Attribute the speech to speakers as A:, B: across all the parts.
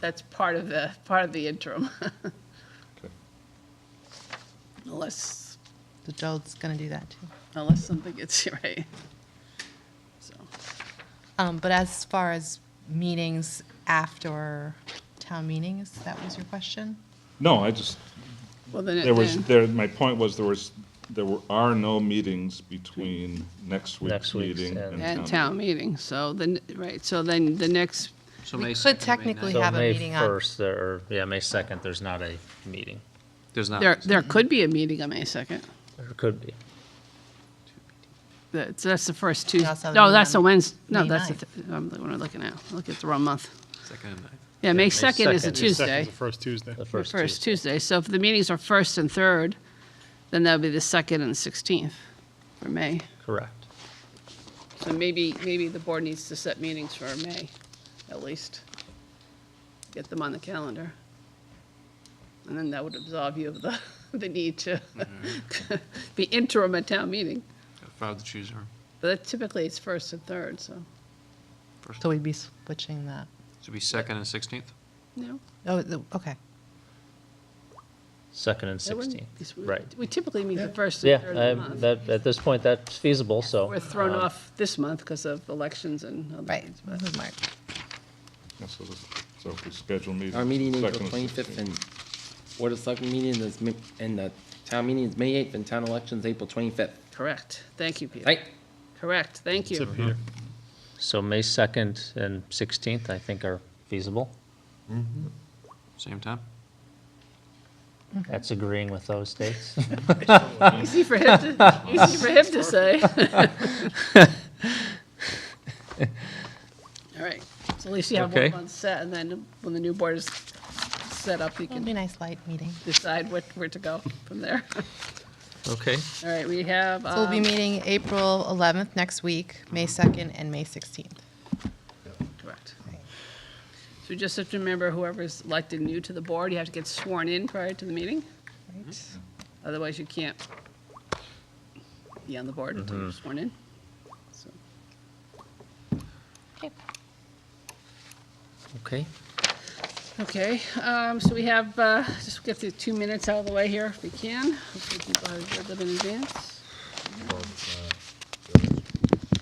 A: that's part of the, part of the interim.
B: Okay.
A: Unless,
C: So Joe's going to do that too.
A: unless something gets you right. So,
C: Um, but as far as meetings after town meetings, that was your question?
B: No, I just,
A: Well, then it,
B: there was,
A: then-
B: there, my point was, there was, there were, are no meetings between next week's
D: Next week's
B: meeting
D: and-
A: at
B: and town.
A: town meeting, so then, right, so then the next,
E: So May
C: We
E: 2nd, May
C: could technically
E: 9th.
C: have a meeting
D: So May
C: on,
D: 1st, there, or, yeah, May 2nd, there's not a meeting.
E: There's not.
A: there, there could be a meeting on May 2nd.
D: There could be.
A: That's, that's the first
C: We also
A: Tuesday.
C: have a
A: No,
C: meeting
A: that's
C: on
A: a Wednesday, no,
C: May
A: that's, the
C: 9th.
A: th- I'm, what am I looking at? Look at the wrong month.
E: Second and ninth.
A: Yeah, May
D: May
A: 2nd is a
D: 2nd. May 2nd is
A: Tuesday.
F: Second's the first Tuesday.
D: The
A: The
D: first
A: first
D: Tuesday.
A: Tuesday, so if the meetings are first and third, then that'll be the second and 16th for May.
D: Correct.
A: So maybe, maybe the board needs to set meetings for May, at least. Get them on the calendar. And then that would absolve you of the, the need to
D: Mm-hmm.
A: be interim at town meeting.
E: If I were to choose her.
A: But typically, it's first and third, so,
C: so we'd be switching that.
E: Should be second and 16th?
A: no.
C: Oh, the- okay.
D: 2nd and
A: that wouldn't-
D: 16th,
A: because we-
D: right.
A: We typically meet the first
D: Yeah,
A: and third of the
D: I-
A: month.
D: that, at this point, that's feasible, so.
A: We're thrown
D: um,
A: off this month because of elections and other
C: Right.
A: things, but-
C: This is Mark.
B: Yeah, So this- so if we schedule meetings.
G: Our meeting is the
B: second and
G: twenty-fifth
B: 16th.
G: and Board of Selectmen meeting is, Ma- and the town meeting is May eighth and town election's April twenty-fifth.
A: Correct, thank you, Peter.
G: Right?
A: Correct, thank
F: So
A: you.
F: Peter,
D: So May 2nd and 16th, I think, are feasible.
E: Same time?
D: That's agreeing with those dates.
A: Easy for him to, easy for him to say. All right, so at least you have one
D: Okay.
A: month set, and then when the new board is set up, you
C: It'll be
A: can
C: a nice light meeting.
A: decide what, where to go from there.
D: Okay.
A: All right, we have,
C: So we'll be
A: um,
C: meeting April 11th next week, May 2nd and May 16th.
A: um, correct. So we just have to remember whoever's elected new to the board, you have to get sworn in prior to the meeting,
C: Right.
A: otherwise you can't be on the board until you're sworn in. So,
D: Okay.
A: Okay, um, so we have, uh, just get the two minutes out of the way here if we can. Hopefully people have read them in advance.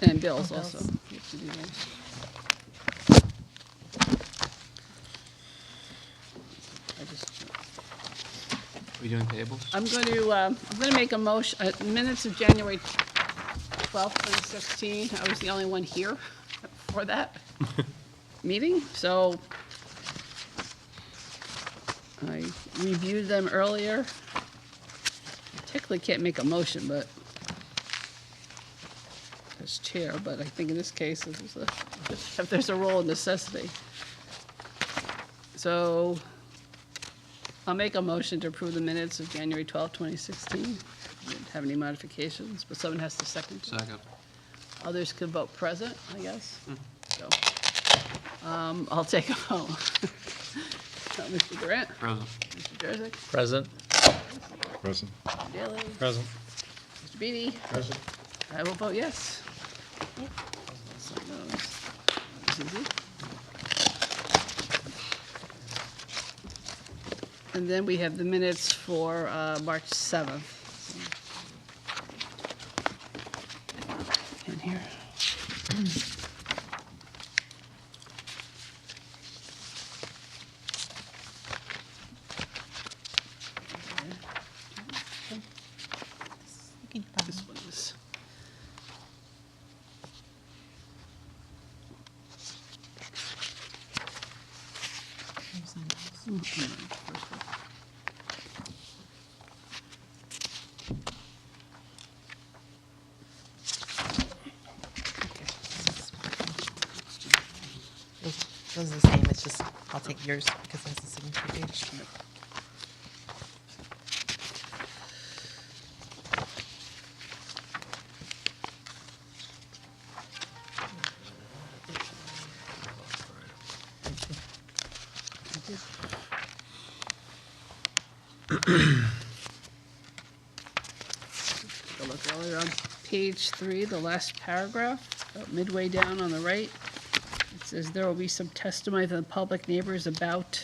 A: And bills
C: Oh, bills.
A: also. We have to do those. I just-
E: We doing
C: Uh,
E: tables?
A: I'm going to, um, I'm going to make a motion, uh, minutes of January 12th, 2016. I was the only one here for that meeting, so I reviewed them earlier. Technically can't make a motion, but as chair, but I think in this case, this is a, if there's a role of necessity. So I'll make a motion to approve the minutes of January 12, 2016. Didn't have any modifications, but someone has to second.
E: Second.
A: Others could vote present, I guess. So, um, I'll take a vote. Uh, Mr. Durant,
E: Present.
A: Mr. Jurassic,
D: Present?
B: Present.
A: Mr. Daley,
D: Present.
A: Mr. Beatty. I will vote yes. So those- this is it. And then we have the minutes for uh, March 7th. so. In here.
C: You can probably-
A: This one is.
C: Those those are the same, it's just, I'll take yours because that's the signature page.
A: Take a look earlier on page three, the last paragraph, about midway down on the right. It says there will be some testimony from the public neighbors about